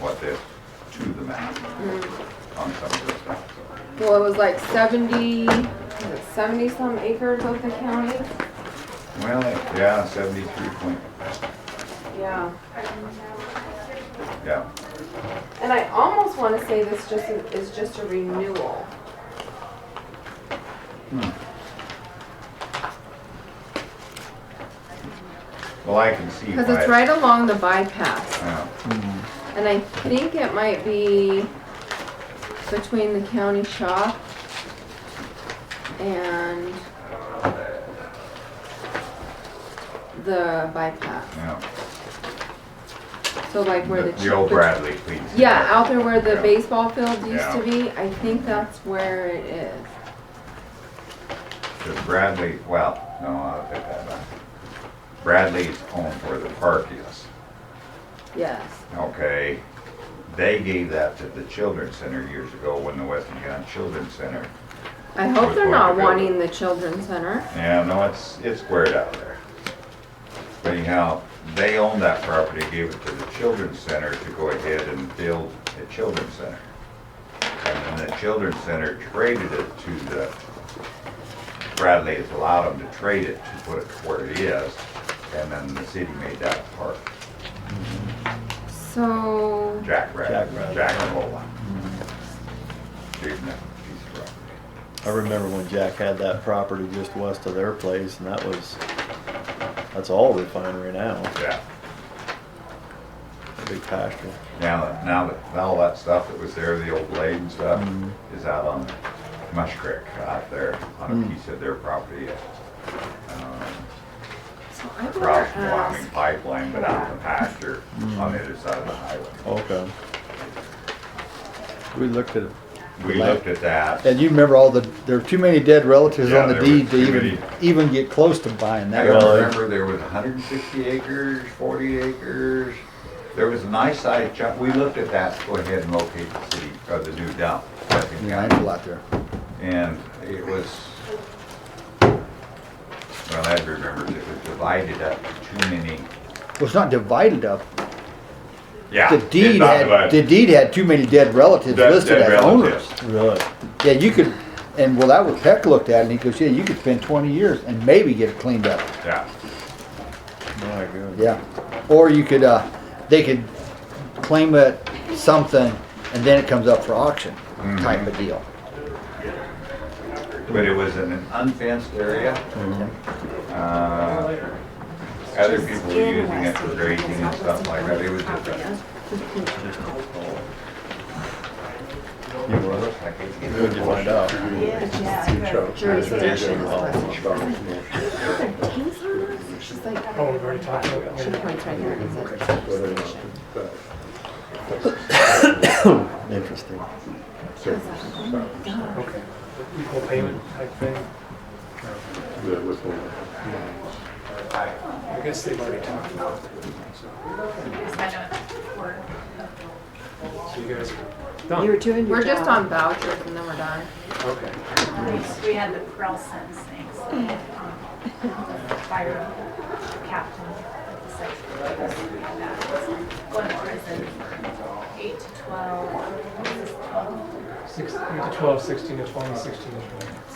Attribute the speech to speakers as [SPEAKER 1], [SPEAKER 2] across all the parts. [SPEAKER 1] what this to the map
[SPEAKER 2] Mm.
[SPEAKER 1] on some of this stuff.
[SPEAKER 2] Well, it was like seventy, was it seventy some acres of the county?
[SPEAKER 1] Well, yeah, seventy-three point,
[SPEAKER 2] Yeah.
[SPEAKER 1] yeah.
[SPEAKER 2] And I almost wanna say this just is, is just a renewal. Hmm.
[SPEAKER 1] Well, I can see why.
[SPEAKER 2] Cause it's right along the bypass.
[SPEAKER 1] Yeah,
[SPEAKER 2] And I think it might be between the county shop and the bypass.
[SPEAKER 1] yeah.
[SPEAKER 2] So like where the.
[SPEAKER 1] The the old
[SPEAKER 2] chi-
[SPEAKER 1] Bradley, please.
[SPEAKER 2] Yeah, out there where the
[SPEAKER 1] Yeah.
[SPEAKER 2] baseball field used
[SPEAKER 1] Yeah.
[SPEAKER 2] to be, I think that's where it is.
[SPEAKER 1] The Bradley, well, no, I'll take that back. Bradley's owned where the park is,
[SPEAKER 2] Yes.
[SPEAKER 1] okay? They gave that to the Children's Center years ago when the Western County Children's Center.
[SPEAKER 2] I hope
[SPEAKER 1] Which
[SPEAKER 2] they're
[SPEAKER 1] one
[SPEAKER 2] not
[SPEAKER 1] to go?
[SPEAKER 2] wanting the children's center.
[SPEAKER 1] Yeah, no, it's, it's squared out there. But anyhow, they own that property, gave it to the Children's Center to go ahead and build a Children's Center. And then the Children's Center traded it to the, Bradley has allowed them to trade it to put it where it is, and then the city made that park,
[SPEAKER 2] So,
[SPEAKER 1] Jack
[SPEAKER 3] Jack
[SPEAKER 1] Rabbit,
[SPEAKER 3] Rabbit.
[SPEAKER 1] Jack and Lola. Gave them that piece of property.
[SPEAKER 3] I remember when Jack had that property just west of their place, and that was, that's all refinery now,
[SPEAKER 1] Yeah.
[SPEAKER 3] a big pasture.
[SPEAKER 1] Now that, now that, all that stuff that was there, the old blade and stuff,
[SPEAKER 4] Mm-hmm.
[SPEAKER 1] is out on Mush Creek, uh, out there, on a
[SPEAKER 3] Mm.
[SPEAKER 1] piece of their property. um,
[SPEAKER 2] so I would
[SPEAKER 1] Across the Wyoming
[SPEAKER 2] ask,
[SPEAKER 1] pipeline, but out in the pasture,
[SPEAKER 4] Mm.
[SPEAKER 1] on the other side of the highway.
[SPEAKER 3] Okay. We looked at it.
[SPEAKER 1] We looked at that,
[SPEAKER 4] And you remember all the, there were too many dead relatives
[SPEAKER 1] Yeah,
[SPEAKER 4] on the
[SPEAKER 1] there were
[SPEAKER 4] deed to
[SPEAKER 1] too
[SPEAKER 4] even,
[SPEAKER 1] many.
[SPEAKER 4] even get close to buying
[SPEAKER 1] I
[SPEAKER 4] that.
[SPEAKER 3] Well, it-
[SPEAKER 1] remember there was hundred and sixty acres, forty acres, there was a nice sized chunk, we looked at that, to go ahead and locate the city, or the new dump. Hudson
[SPEAKER 4] Yeah,
[SPEAKER 1] County.
[SPEAKER 4] I know a lot there.
[SPEAKER 1] And it was, well, I remember it was divided up too many.
[SPEAKER 4] Well, it's not divided up.
[SPEAKER 1] Yeah.
[SPEAKER 4] The deed had, the deed had too many dead relatives listed as owners.
[SPEAKER 3] Really?
[SPEAKER 4] Yeah, you could, and well, that was, Peck looked at it and he goes, yeah, you could spend twenty years and maybe get it cleaned up.
[SPEAKER 1] Yeah,
[SPEAKER 3] My goodness.
[SPEAKER 4] Yeah. Or you could, uh, they could claim it something and then it comes up for auction
[SPEAKER 1] Mm-hmm.
[SPEAKER 4] type of deal.
[SPEAKER 1] but it was in an unfenced area.
[SPEAKER 4] Mm-hmm.
[SPEAKER 1] Uh, Other people were using it for grazing and stuff like that, it was just a.
[SPEAKER 3] You were? Who'd you find out?
[SPEAKER 2] Jurisdiction.
[SPEAKER 5] Oh, we've already talked about that.
[SPEAKER 3] Interesting.
[SPEAKER 5] Okay. Equal payment type thing. I guess they've already talked about it. So you guys are
[SPEAKER 6] You were
[SPEAKER 5] done.
[SPEAKER 6] doing your
[SPEAKER 2] We're
[SPEAKER 6] job.
[SPEAKER 2] just on vouchers and then we're done.
[SPEAKER 5] Okay.
[SPEAKER 7] We had the Brelsons things, fire captain, the section, we had that. Going to prison, eight to twelve, this is twelve
[SPEAKER 5] Six, eight to 12, 16 to 20, 16 to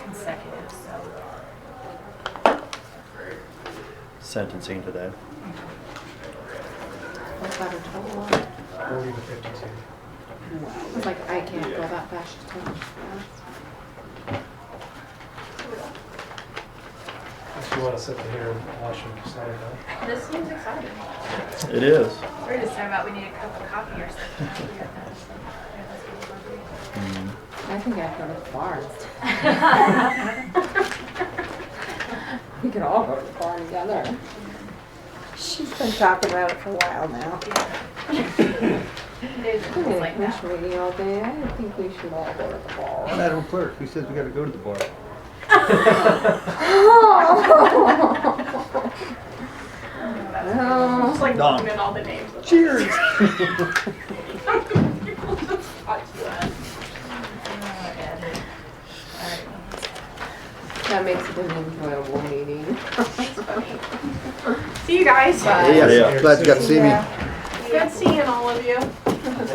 [SPEAKER 5] 20.
[SPEAKER 7] consecutive, so
[SPEAKER 3] Sentencing today.
[SPEAKER 2] What's that a total of?
[SPEAKER 5] 40 to 52.
[SPEAKER 2] I was like, I can't go that fast. she's too much.
[SPEAKER 5] If you want to sit here and watch them decide that.
[SPEAKER 7] this seems exciting.
[SPEAKER 3] It is.
[SPEAKER 7] We're just talking about we need a cup of coffee or something. We got that. We
[SPEAKER 2] I think I'd go to the bar. instead. We could all go to the bar together.
[SPEAKER 6] She's been talking about it for a while now.
[SPEAKER 7] have
[SPEAKER 2] We're
[SPEAKER 7] this little- There's things
[SPEAKER 2] gonna
[SPEAKER 7] like that.
[SPEAKER 2] commission meeting all day. I think we should all go to the bar.
[SPEAKER 4] Madam Clerk, who says we gotta go to the bar?
[SPEAKER 2] No.
[SPEAKER 6] Oh.
[SPEAKER 7] It's like
[SPEAKER 3] Done.
[SPEAKER 7] looking at all the names. of-
[SPEAKER 4] Cheers.
[SPEAKER 7] Oh, yeah, dude. All right.
[SPEAKER 2] That makes it an enjoyable meeting.
[SPEAKER 7] See you guys.
[SPEAKER 2] Bye.
[SPEAKER 4] Yeah, glad you got to see me.
[SPEAKER 7] Good seeing all of you.